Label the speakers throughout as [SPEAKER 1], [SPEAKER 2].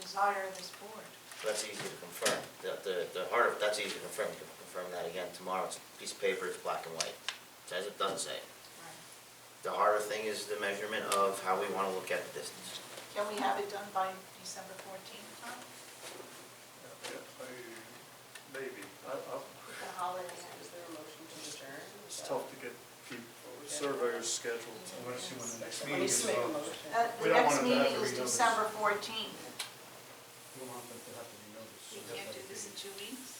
[SPEAKER 1] desire of this board.
[SPEAKER 2] That's easy to confirm. The, the, the heart of, that's easy to confirm. You can confirm that again tomorrow. It's a piece of paper, it's black and white. Says it, doesn't say. it. The harder thing is the measurement of how we want to look at the distance.
[SPEAKER 1] Can we have it done by December 14th, Tom?
[SPEAKER 3] Yeah, I- Maybe, I, I,
[SPEAKER 1] The holiday.
[SPEAKER 4] Is there a motion to adjourn?
[SPEAKER 3] it's tough to get people, surveyors scheduled. I wanna see when the next
[SPEAKER 4] Let me just make a motion.
[SPEAKER 1] Uh, The
[SPEAKER 3] We don't
[SPEAKER 1] next
[SPEAKER 3] want it to have
[SPEAKER 1] meeting
[SPEAKER 3] to
[SPEAKER 1] is
[SPEAKER 3] be noticed.
[SPEAKER 1] December 14th.
[SPEAKER 5] We want them to have to be noticed.
[SPEAKER 1] We can't do this in two weeks.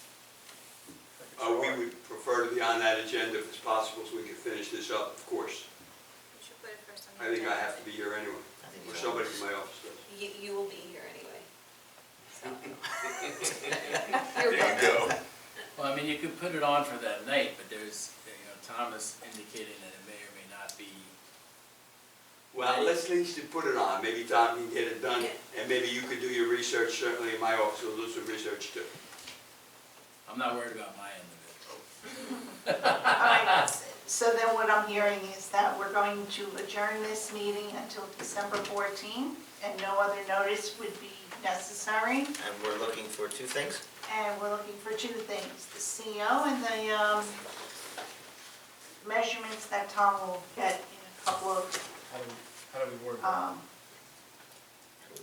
[SPEAKER 6] Uh, we would prefer to be on that agenda if it's possible, so we can finish this up, of course.
[SPEAKER 7] We should put it first on
[SPEAKER 6] I
[SPEAKER 7] the
[SPEAKER 6] think I
[SPEAKER 7] agenda.
[SPEAKER 6] have to be here anyway,
[SPEAKER 2] I think you
[SPEAKER 6] or somebody
[SPEAKER 2] know.
[SPEAKER 6] from my office does.
[SPEAKER 4] You, you will be here anyway. So.
[SPEAKER 7] You're welcome.
[SPEAKER 8] Well, I mean, you could put it on for that night, but there's, you know, Thomas indicated that it may or may not be,
[SPEAKER 6] Well, let's at least put it on, maybe Tom can get it done,
[SPEAKER 4] Yeah.
[SPEAKER 6] and maybe you could do your research, certainly in my office, we'll do some research too.
[SPEAKER 8] I'm not worried about my end of it.
[SPEAKER 1] All right, so then what I'm hearing is that we're going to adjourn this meeting until December 14th, and no other notice would be necessary.
[SPEAKER 2] And we're looking for two things.
[SPEAKER 1] And we're looking for two things, the CO and the um, measurements that Tom will get in a couple of,
[SPEAKER 5] How do, how do we word that?
[SPEAKER 1] um,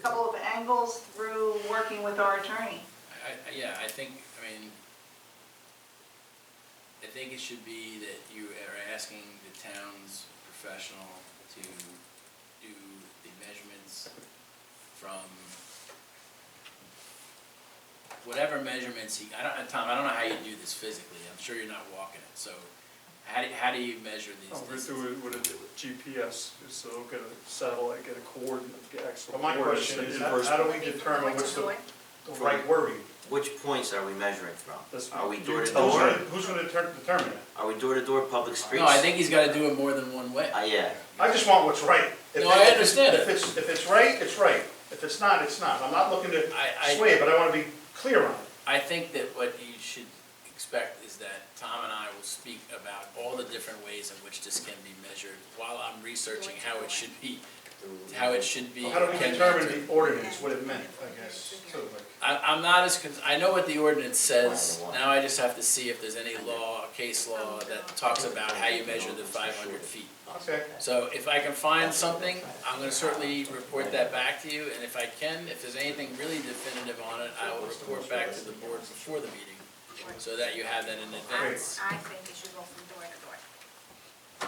[SPEAKER 1] couple of angles through working with our attorney.
[SPEAKER 8] I, I, yeah, I think, I mean, I think it should be that you are asking the town's professional to do the measurements from whatever measurements he, I don't, Tom, I don't know how you do this physically, I'm sure you're not walking it, so how do, how do you measure these
[SPEAKER 3] Oh, we
[SPEAKER 8] distances?
[SPEAKER 3] do it with a GPS, so get a satellite, get a coordinate, get actual.
[SPEAKER 5] But my
[SPEAKER 3] coordinates
[SPEAKER 5] question
[SPEAKER 3] and
[SPEAKER 5] is,
[SPEAKER 3] inverse
[SPEAKER 5] how do we determine what's the, the right wording?
[SPEAKER 2] Which points are we measuring from?
[SPEAKER 3] That's
[SPEAKER 2] Are we
[SPEAKER 3] what you
[SPEAKER 2] door to
[SPEAKER 3] tell
[SPEAKER 5] Who's
[SPEAKER 3] me.
[SPEAKER 2] door?
[SPEAKER 5] gonna, who's gonna deter- determine that?
[SPEAKER 2] Are we door to door, public streets?
[SPEAKER 8] No, I think he's gotta do it more than one way.
[SPEAKER 2] Uh, yeah.
[SPEAKER 5] I just want what's right. If
[SPEAKER 8] No, I
[SPEAKER 5] it-
[SPEAKER 8] understand
[SPEAKER 5] If
[SPEAKER 8] it.
[SPEAKER 5] it's, if it's right, it's right. If it's not, it's not. I'm not looking to
[SPEAKER 8] I- I-
[SPEAKER 5] sway, it, but I wanna be clear on it.
[SPEAKER 8] I think that what you should expect is that Tom and I will speak about all the different ways in which this can be measured while I'm researching how it should be, how it should be.
[SPEAKER 5] How do we
[SPEAKER 8] can be
[SPEAKER 5] determine
[SPEAKER 8] measured.
[SPEAKER 5] the ordinance, what it meant, I guess, too, like.
[SPEAKER 8] I, I'm not as, con- I know what the ordinance says, now I just have to see if there's any law, case law that talks about how you measure the five hundred feet.
[SPEAKER 5] Okay.
[SPEAKER 8] So if I can find something, I'm gonna certainly report that back to you, and if I can, if there's anything really definitive on it, I will report back to the board before the meeting, so that you have that in advance.
[SPEAKER 7] I, I think you should go from door to door.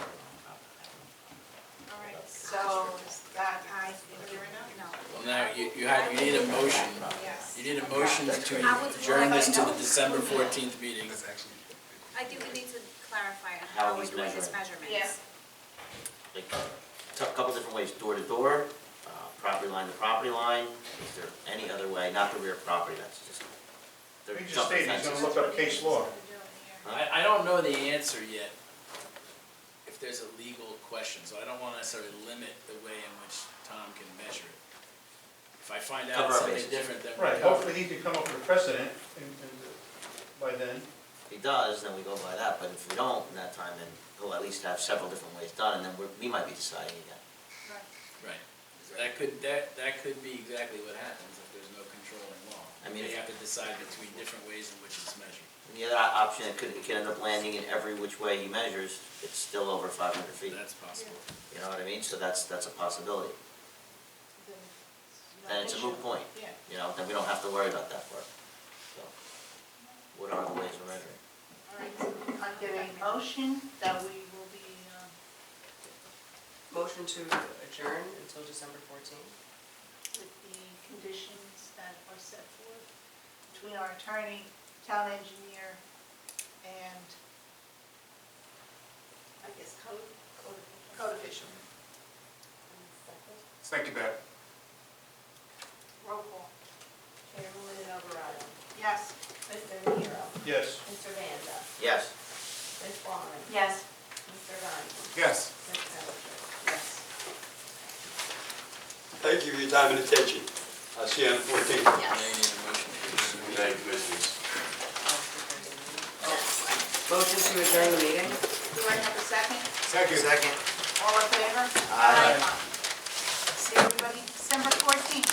[SPEAKER 1] All right, so is that,
[SPEAKER 7] I think you're enough. No.
[SPEAKER 8] Well, now, you, you had, you need a motion,
[SPEAKER 7] Yes.
[SPEAKER 8] you need a motion to
[SPEAKER 7] I was
[SPEAKER 8] adjourn this to the December fourteenth meeting.
[SPEAKER 7] I think we need to clarify on
[SPEAKER 2] How
[SPEAKER 7] how we
[SPEAKER 2] he's
[SPEAKER 7] do his
[SPEAKER 2] measuring.
[SPEAKER 7] measurements.
[SPEAKER 1] Yeah.
[SPEAKER 2] Like, a couple different ways, door to door, uh, property line to property line. Is there any other way, not the rear property, that's just. they're
[SPEAKER 5] He just
[SPEAKER 2] jumping
[SPEAKER 5] stated he's
[SPEAKER 2] fences.
[SPEAKER 5] gonna look up case law.
[SPEAKER 8] I, I don't know the answer yet, if there's a legal question, so I don't wanna necessarily limit the way in which Tom can measure it. If I find out
[SPEAKER 2] Cover our
[SPEAKER 8] something
[SPEAKER 2] bases.
[SPEAKER 8] different, then
[SPEAKER 5] Right,
[SPEAKER 8] we
[SPEAKER 5] hopefully he can come up with a precedent and, and by then.
[SPEAKER 2] If he does, then we go by that, but if we don't in that time, then he'll at least have several different ways done, and then we're, we might be deciding again.
[SPEAKER 8] Right, that could, that, that could be exactly what happens if there's no control in law.
[SPEAKER 2] I mean,
[SPEAKER 8] They
[SPEAKER 2] if-
[SPEAKER 8] have to decide between different ways in which it's measured.
[SPEAKER 2] And the other o- option, it could, it could end up landing in every which way he measures, it's still over five hundred feet,
[SPEAKER 8] That's possible.
[SPEAKER 2] you know what I mean? So that's, that's a possibility,
[SPEAKER 1] Then
[SPEAKER 2] then it's a moot point,
[SPEAKER 1] Yeah.
[SPEAKER 2] you know, then we don't have to worry about that part, so. What are the ways we're measuring?
[SPEAKER 1] All right, so I'm getting a motion that we will be, um,
[SPEAKER 4] Motion to adjourn until December fourteenth.
[SPEAKER 1] with the conditions that are set forth between our attorney, town engineer, and, I guess, code, code- code official.
[SPEAKER 5] Think about it.
[SPEAKER 1] Roll call.
[SPEAKER 4] Chairwoman Alvarado,
[SPEAKER 1] Yes.
[SPEAKER 4] Mr. Nero,
[SPEAKER 5] Yes.
[SPEAKER 4] Mr. Vanda,
[SPEAKER 2] Yes?
[SPEAKER 4] Ms. Wallen,
[SPEAKER 1] Yes.
[SPEAKER 4] Mr. Ryan,
[SPEAKER 5] Yes.
[SPEAKER 4] Ms. Pellicet. Yes.
[SPEAKER 6] Thank you for your time and attention. I'll see you on the fourteenth.
[SPEAKER 8] Now you need a motion to adjourn.
[SPEAKER 6] Thank you, Mrs.
[SPEAKER 4] Motion to adjourn the meeting?
[SPEAKER 1] Do I have a second?
[SPEAKER 2] Second. Second.
[SPEAKER 1] All in favor? Aye. See everybody December 14th.